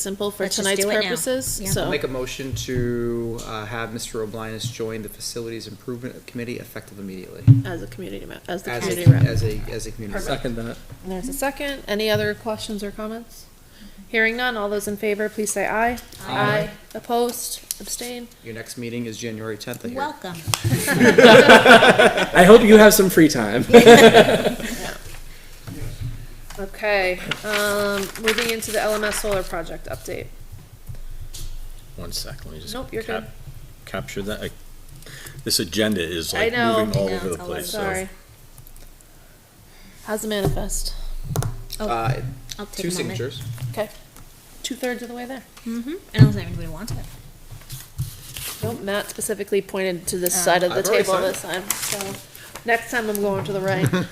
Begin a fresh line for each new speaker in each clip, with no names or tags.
simple for
Let's just
tonight's
do it now.
purposes,
Yeah.
so.
I'll make a motion to uh, have Mr. Oblinus join the Facilities Improvement Committee effective immediately.
Uh,
As a community ma- as the
As
community
a,
rep.
as a, as a community. rep.
Second that.
There's a second. Any other questions or comments? Hearing none, all those in favor, please say aye.
Aye.
Opposed, abstain?
Your next meeting is January tenth, I hear.
Welcome.
I hope you have some free time.
Okay, um, moving into the LMS solar project update.
One sec, let me just.
Nope, you're
cap-
good.
Capture that. I- This agenda is
I
like
know.
moving all
I know,
over the
it's all over
place,
the
so.
Sorry. How's the manifest?
Oh,
Uh,
I'll take
two
a moment.
signatures.
Okay. Two-thirds of the way there.
Mm-hmm. I don't think anybody wants it.
Nope, Matt specifically pointed to
Oh.
this side of the
I've already
table
signed
this time, so. Next time I'm going to the right.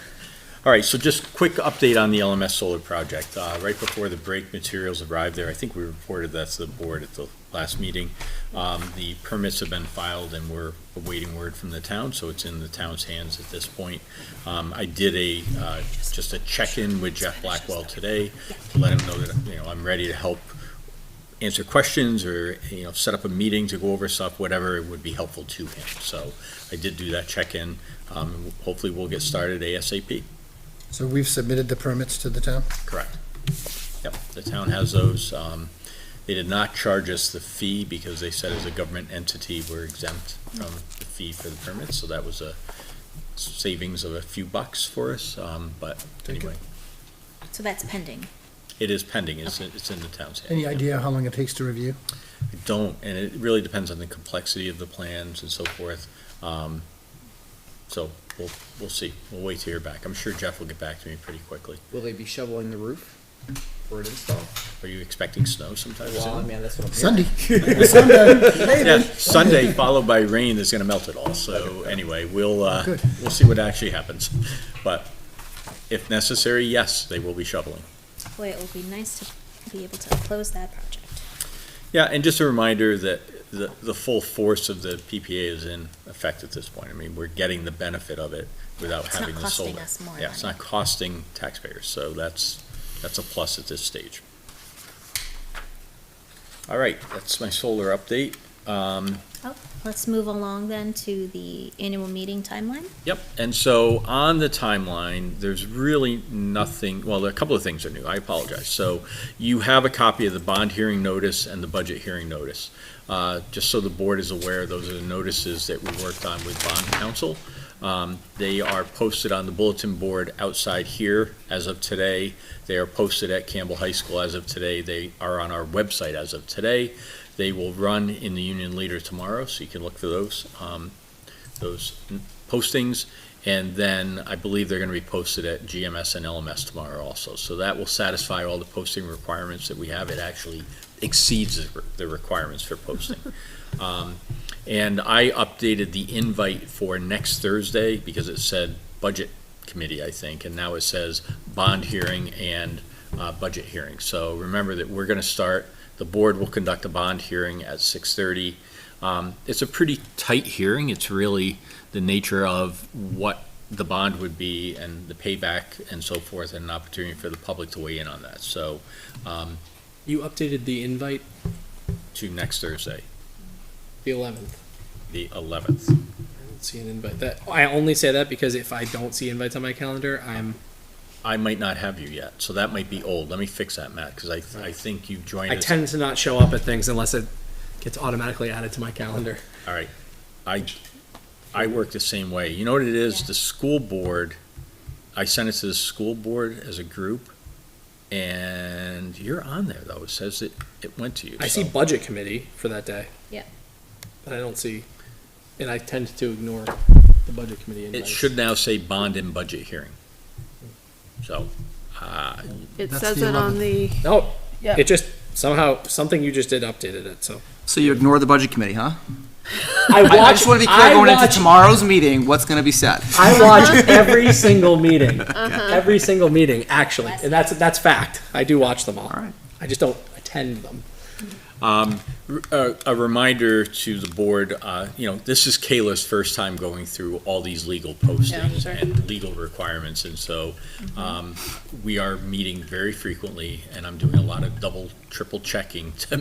All right, so just quick update on the LMS solar project. Uh, Right before the break, materials arrived there. I think we reported that to the board at the last meeting. Um, The permits have been filed and we're awaiting word from the town, so it's in the town's hands at this point. Um, I did a, uh, just a check-in with Jeff Blackwell today to let him know that, you know, I'm ready to help answer questions or, you know, set up a meeting to go over stuff, whatever would be helpful to him. So I did do that check-in. Um, Hopefully, we'll get started ASAP.
So we've submitted the permits to the town?
Correct. Yep, the town has those. Um, They did not charge us the fee because they said as a government entity, we're exempt from the fee for the permits, so that was a savings of a few bucks for us, um, but anyway,
So that's pending.
it is pending, it's, it's in the town's hands.
Any idea how long it takes to review?
I Don't, and it really depends on the complexity of the plans and so forth. Um, So we'll, we'll see, we'll wait to hear back. I'm sure Jeff will get back to me pretty quickly.
Will they be shoveling the roof for an install?
Are you expecting snow sometime soon?
Well, I mean, that's what I'm hearing.
Sunday?
Yeah, Sunday followed by rain is gonna melt it all, so anyway, we'll, uh,
Good.
we'll see what actually happens. But if necessary, yes, they will be shoveling.
Boy, it would be nice to be able to close that project.
Yeah, and just a reminder that the, the full force of the PPA is in effect at this point. I mean, we're getting the benefit of it without
It's not
having the solar.
costing us more
Yeah, it's
money.
not costing taxpayers, so that's, that's a plus at this stage. All right, that's my solar update. Um,
Oh, let's move along then to the annual meeting timeline.
Yep, and so on the timeline, there's really nothing, well, a couple of things are new, I apologize. So you have a copy of the bond hearing notice and the budget hearing notice. Uh, Just so the board is aware, those are the notices that we worked on with bond council. Um, They are posted on the bulletin board outside here as of today. They are posted at Campbell High School as of today. They are on our website as of today. They will run in the Union Leader tomorrow, so you can look for those, um, those postings, and then I believe they're gonna be posted at GMS and LMS tomorrow also. So that will satisfy all the posting requirements that we have. It actually exceeds the- the requirements for posting. Um, And I updated the invite for next Thursday because it said Budget Committee, I think, and now it says Bond Hearing and uh, Budget Hearing. So remember that we're gonna start, the board will conduct a bond hearing at six-thirty. It's a pretty tight hearing. It's really, the nature of what the bond would be and the payback and so forth, and an opportunity for the public to weigh in on that. So, um,
You updated the invite
to next Thursday,
the 11th.
the eleventh.
I don't see an invite. That I only say that because if I don't see invites on my calendar, I'm
I might not have you yet, so that might be old. Let me fix that, Matt, because I, I think you joined
I
us.
tend to not show up at things unless it gets automatically added to my calendar.
All right. I, I work the same way. You know what it
Yeah.
is? The school board, I sent it to the school board as a group, and you're on there, though. It says it, it went to you.
I see
so-
budget committee for that day.
Yeah.
But I don't see, and I tend to ignore the budget committee
It
invites.
should now say bond and budget hearing. So, uh,
It
That's
says
the
it on the,
No,
yeah.
it just somehow, something you just did updated it, so.
So you ignore the budget committee, huh?
I
I, I just want to be clear
I
going into
watch-
tomorrow's meeting, what's going to be said.
I watch every single meeting, every single meeting, actually, and that's, that's fact. I do watch them all.
All right.
I just don't attend them.
Um, r- a, a reminder to the board, uh, you know, this is Kayla's first time going through all these legal postings
sure.
and legal requirements, and so, um, we are meeting very frequently, and I'm doing a lot of double, triple checking to